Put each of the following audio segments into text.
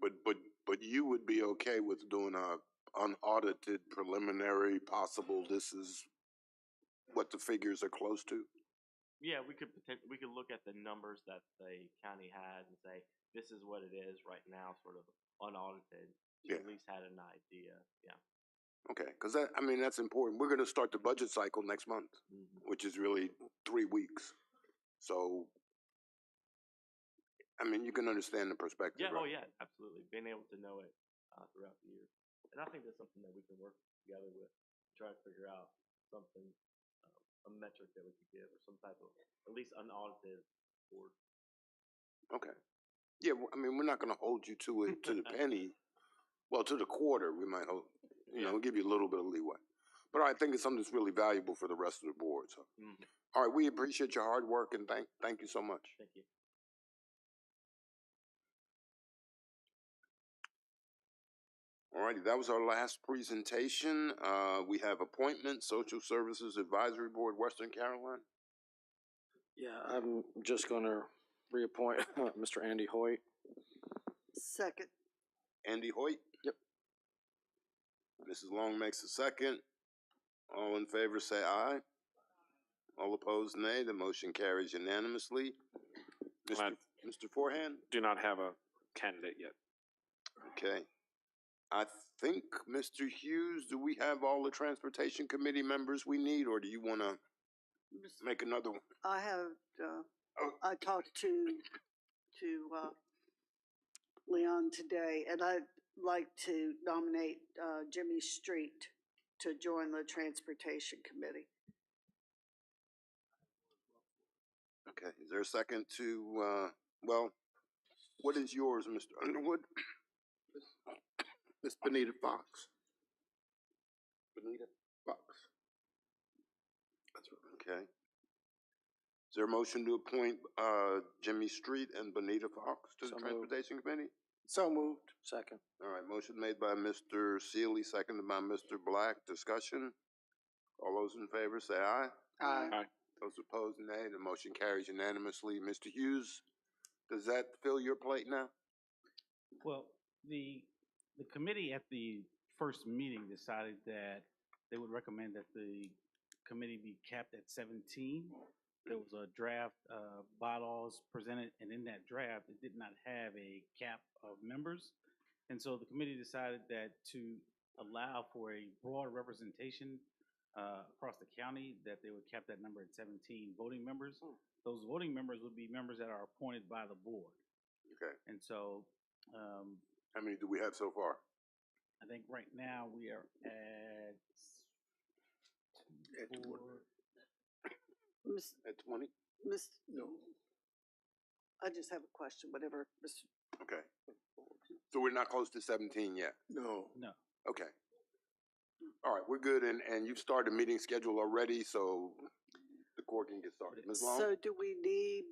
But but but you would be okay with doing a unaudited preliminary possible this is what the figures are close to? Yeah, we could potent- we could look at the numbers that the county has and say this is what it is right now, sort of unaudited. So you Yeah. At least had an idea. Yeah. Okay, because that I mean that's important. We're gonna start the budget cycle next month, hmm which is really three weeks. So I mean you can understand the perspective, Yeah. right? Oh, yeah. Absolutely. Being able to know it uh, throughout the year, and I think that's something that we can work together with, try to figure out something, uh, a metric that we could give, or some type of at least unaudited or Okay. Yeah, w- I mean, we're not gonna hold you to it, to the penny, well, to the quarter, we might hold, you know, give you a little bit of leeway. But I think it's something that's really valuable for the rest of the board, so. Mhm. All right, we appreciate your hard work and thank, thank you so much. Thank you. All righty, that was our last presentation. Uh, we have appointments, Social Services Advisory Board, Western Carolina. Yeah, I'm just gonna reappoint Mr. Andy Hoyt. Second. Andy Hoyt? Yep. Mrs. Long makes a second. All in favor say aye. All opposed nay. The motion carries unanimously. Mr. Aye. Mr. Forehand? Do not have a candidate yet. Okay. I think, Mr. Hughes, do we have all the Transportation Committee members we need, or do you want to make another one? I have, uh, Oh. I talked to, to, uh, Leon today, and I'd like to nominate, uh, Jimmy Street to join the Transportation Committee. Okay, is there a second to, uh, well, what is yours, Mr. Underwood? Ms. Benita Fox. Benita Fox. That's right. Okay. Is there a motion to appoint, uh, Jimmy Street and Benita Fox to So the moved. Transportation Committee? So moved. Second. All right, motion made by Mr. Seeley, seconded by Mr. Black. Discussion? All those in favor say aye. Aye. Aye. Those opposed, nay. The motion carries unanimously. Mr. Hughes, does that fill your plate now? Well, the, the committee at the first meeting decided that they would recommend that the committee be capped at seventeen. There was a draft, uh, bylaws presented, and in that draft, it did not have a cap of members. And so the committee decided that to allow for a broad representation, uh, across the county, that they would cap that number at seventeen voting members. Those voting members would be members that are appointed by the board. Okay, And so, um, how many do we have so far? I think right now we are at At four, Miss, At twenty? Miss. No. I just have a question, whatever, Miss, Okay. So we're not close to seventeen yet? No. no, Okay. All right, we're good, and, and you've started the meeting schedule already, so the court can get started. Ms. Long? So do we need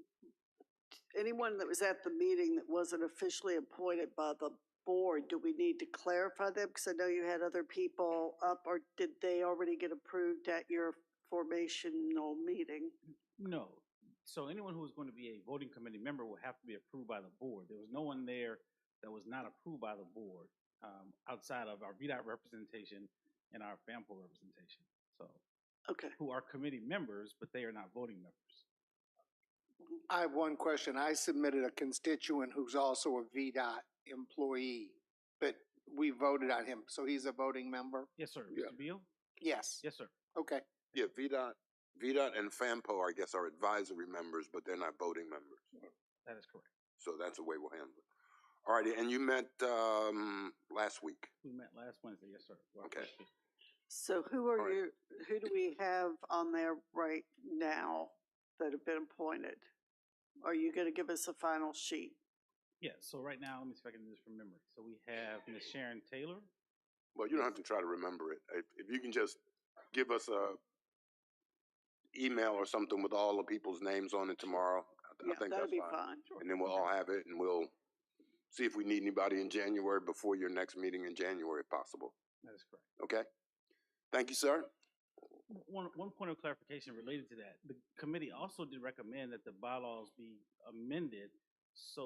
anyone that was at the meeting that wasn't officially appointed by the board, do we need to clarify them? Because I know you had other people up, or did they already get approved at your formational meeting? no. So anyone who is going to be a voting committee member will have to be approved by the board. There was no one there that was not approved by the board, um, outside of our VDOT representation and our FAMPO representation. So, Okay, who are committee members, but they are not voting members. I have one question. I submitted a constituent who's also a VDOT employee, but we voted on him, so he's a voting member? Yes, sir. Yeah. Mr. Beal? Yes, Yes, sir. okay. Yeah, VDOT, VDOT and FAMPO, I guess, are advisory members, but they're not voting members. That is correct. So that's the way we'll handle it. All righty, and you met, um, last week. We met last Wednesday. Yes, sir. Well, Okay. so who All are right. you, who do we have on there right now that have been appointed? Are you gonna give us a final sheet? Yeah, so right now, let me see if I can do this from memory. So we have Ms. Sharon Taylor, Well, you don't have to try to remember it. If, if you can just give us a email or something with all the people's names on it tomorrow, I, Yeah, I think that'd that's be fine. fine. And then we'll all have it and we'll see if we need anybody in January before your next meeting in January if possible. that is correct. Okay? Thank you, sir. W- One, one point of clarification related to that. The committee also did recommend that the bylaws be amended so